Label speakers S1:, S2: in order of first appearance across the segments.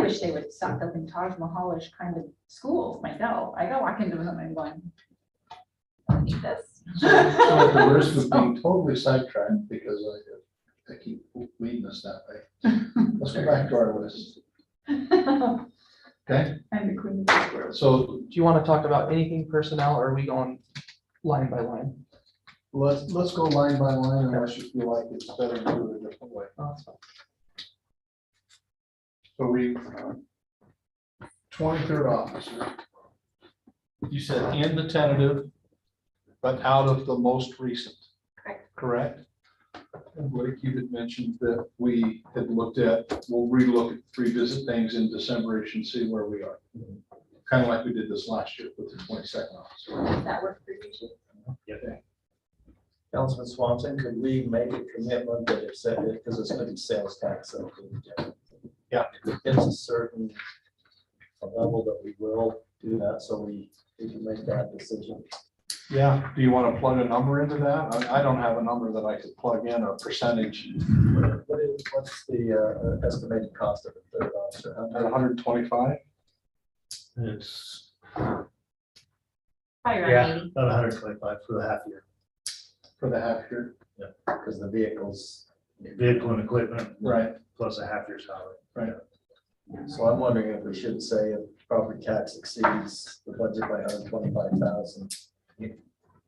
S1: wish they would suck up in Taj Mahalish kind of schools myself. I go walk into them and going, I don't need this.
S2: So the worst would be totally sidetracked because I, I keep leading us that way. Let's go back to our list,
S1: I'm
S2: okay?
S1: the queen of the world.
S2: So
S3: Do you want to talk about anything personnel or are we going line by line?
S2: let's, let's go line by line unless you feel like it's better to do it a different way.
S3: Oh, that's fine.
S2: So we, twenty-third officer, you said in the tentative, but out of the most recent.
S1: Correct.
S2: Correct? And Blake, you had mentioned that we had looked at, we'll relook, revisit things in December-ish and see where we are. Kind of like we did this last year with the twenty-second officer.
S1: Does that work for you too?
S4: Councilman Swanton, could we make a commitment that it's, because it's gonna be sales tax. so we-
S2: Yeah.
S4: If It's a certain level that we will do that, so we, we can make that decision.
S2: Yeah. Do you want to plug a number into that? I, I don't have a number that I could plug in, a percentage,
S4: What what is, what's the uh, estimated cost of a third officer? How much?
S2: hundred and twenty-five?
S5: It's
S1: Probably
S5: Yeah.
S1: around eighty.
S5: about hundred and twenty-five for the half year.
S2: For the half year.
S4: Because the vehicles,
S5: Vehicle and equipment
S2: Right.
S5: plus a half year salary.
S4: so I'm wondering if we should say if property tax exceeds the budget by hundred twenty-five thousand.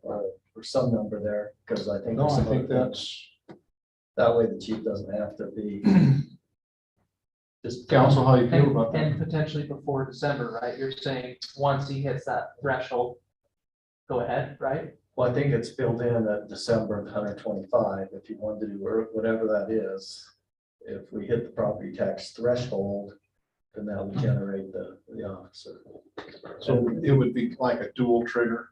S4: Or or some number there, because I think.
S2: No,
S4: there's
S2: I
S4: some
S2: think
S4: other-
S2: that's,
S4: That way the chief doesn't have to be. Just
S2: council, how you feel
S3: And
S2: about that?
S3: and potentially before December, right? You're saying, once he hits that threshold, go ahead, right?
S4: Well, I think it's built in at December of hundred twenty-five, if you wanted to do where- whatever that is. If we hit the property tax threshold, then that would generate the, the officer.
S2: So it would be like a dual trigger.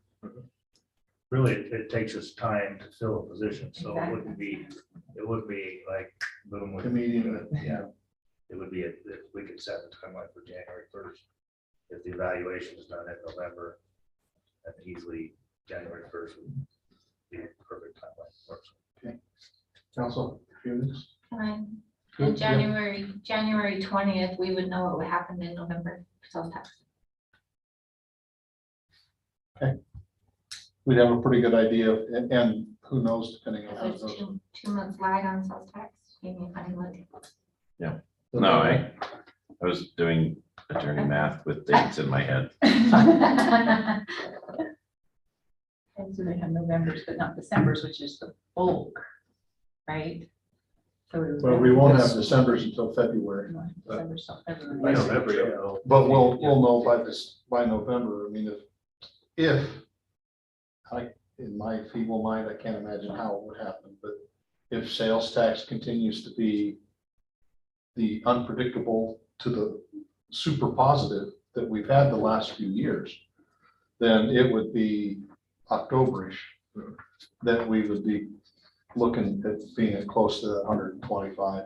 S5: Really, it it takes us time to fill a position, so it wouldn't be, it would be like boom. with-
S2: Immediate.
S5: Yeah. It would be, if if we could set the timeline for January first. If the evaluation is done in November, then easily January first would be a perfect timeline. for us.
S2: Council, confused?
S6: Time.
S2: Yeah.
S6: And January, January twentieth, we would know what would happen in November for sales tax.
S2: We'd have a pretty good idea and, and who knows depending on how
S6: There's
S2: it goes.
S6: two, two months lag on sales tax. Gave me a funny look.
S7: No, I, I was doing attorney math with dates in my head.
S1: And so they have November's, but not December's, which is the bulk, right? So would-
S2: But we won't have December's until February.
S1: December's not February.
S5: By November, you'll know.
S2: But we'll, we'll know by this, by November. I mean, if, if I, in my feeble mind, I can't imagine how it would happen, but if sales tax continues to be the unpredictable to the super positive that we've had the last few years, then it would be Octoberish that we would be looking at being at close to that hundred and twenty-five.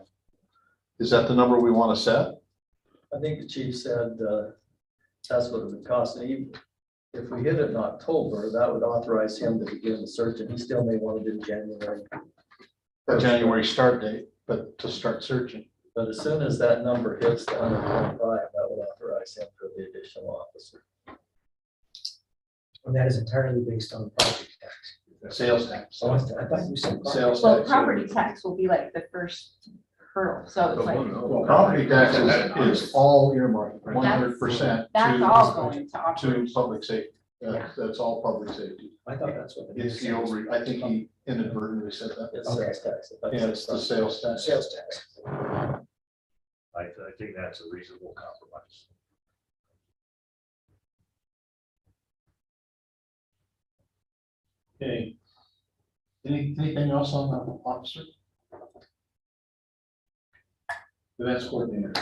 S2: Is that the number we want to set?
S4: I think the chief said, uh, that's what it would cost, and even if we hit it in October, that would authorize him to begin the search, and he still may want to do January.
S2: a January start date, but to start searching.
S4: But as soon as that number hits the hundred twenty-five, that would authorize him for the additional officer.
S8: And that is entirely based on property tax.
S2: Sales tax.
S8: So Oh, I thought you said.
S2: Sales
S1: Well,
S2: tax.
S1: property tax will be like the first hurdle, so it's like,
S2: Well, property tax is, is all earmarked, one hundred percent.
S1: that's all going to
S2: To
S1: operations.
S2: public safety. That's, that's all public safety.
S8: I thought that's what.
S2: It's the over, I think he inadvertently said that.
S4: It's sales tax.
S2: Yeah, it's the sales tax.
S8: Sales tax.
S5: I, I think that's a reasonable compromise.
S2: Okay. Any, anything else on the officer? That's coordinator.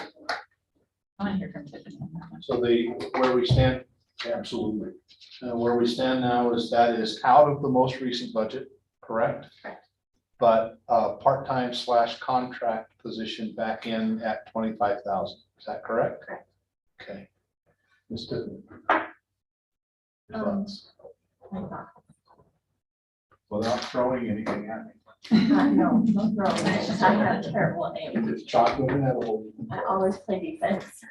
S1: I want to hear from Tiffany on that one.
S2: So the, where we stand, absolutely. Uh, where we stand now is that is out of the most recent budget, correct?
S1: Correct.
S2: But, uh, part-time slash contract position back in at twenty-five thousand, is that correct?
S6: Correct.
S2: Okay. Ms. Tiffany? Your
S6: Um,
S2: thoughts? Without throwing anything at me.
S1: No, no problem. I have a terrible name.
S2: If it's chocolate and edible, you can
S1: I always play defense.